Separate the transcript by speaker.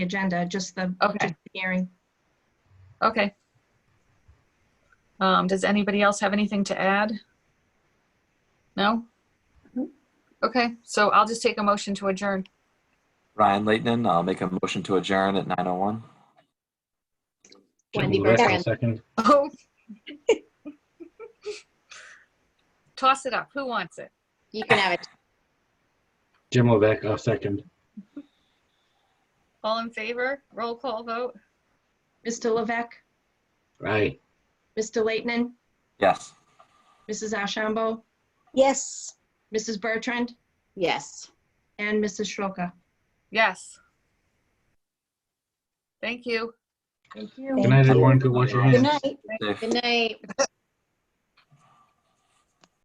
Speaker 1: agenda, just the
Speaker 2: Okay,
Speaker 1: just the hearing.
Speaker 2: okay. Um, does anybody else have anything to add? No? Okay, so I'll just take a motion to adjourn.
Speaker 3: Ryan Leighton, I'll make a motion to adjourn at 9:01.
Speaker 4: Wendy
Speaker 5: Jim Lewis, I'll
Speaker 4: Bertrand.
Speaker 5: Second.
Speaker 2: Oh. Toss it up. Who wants it?
Speaker 4: You can have it.
Speaker 5: Jim Levesque, I'll second.
Speaker 2: All in favor? Roll call vote?
Speaker 1: Mr. Levesque,
Speaker 5: Right.
Speaker 1: Mr. Leighton,
Speaker 3: Yes.
Speaker 1: Mrs. Ashambo,
Speaker 4: Yes.
Speaker 1: Mrs. Bertrand,
Speaker 4: Yes.
Speaker 1: and Mrs. Shroka.
Speaker 2: Yes. Thank you.
Speaker 1: Thank you.
Speaker 5: Good night, everyone. Good watch your hands.
Speaker 4: Good night.
Speaker 3: Safe.
Speaker 4: Good night.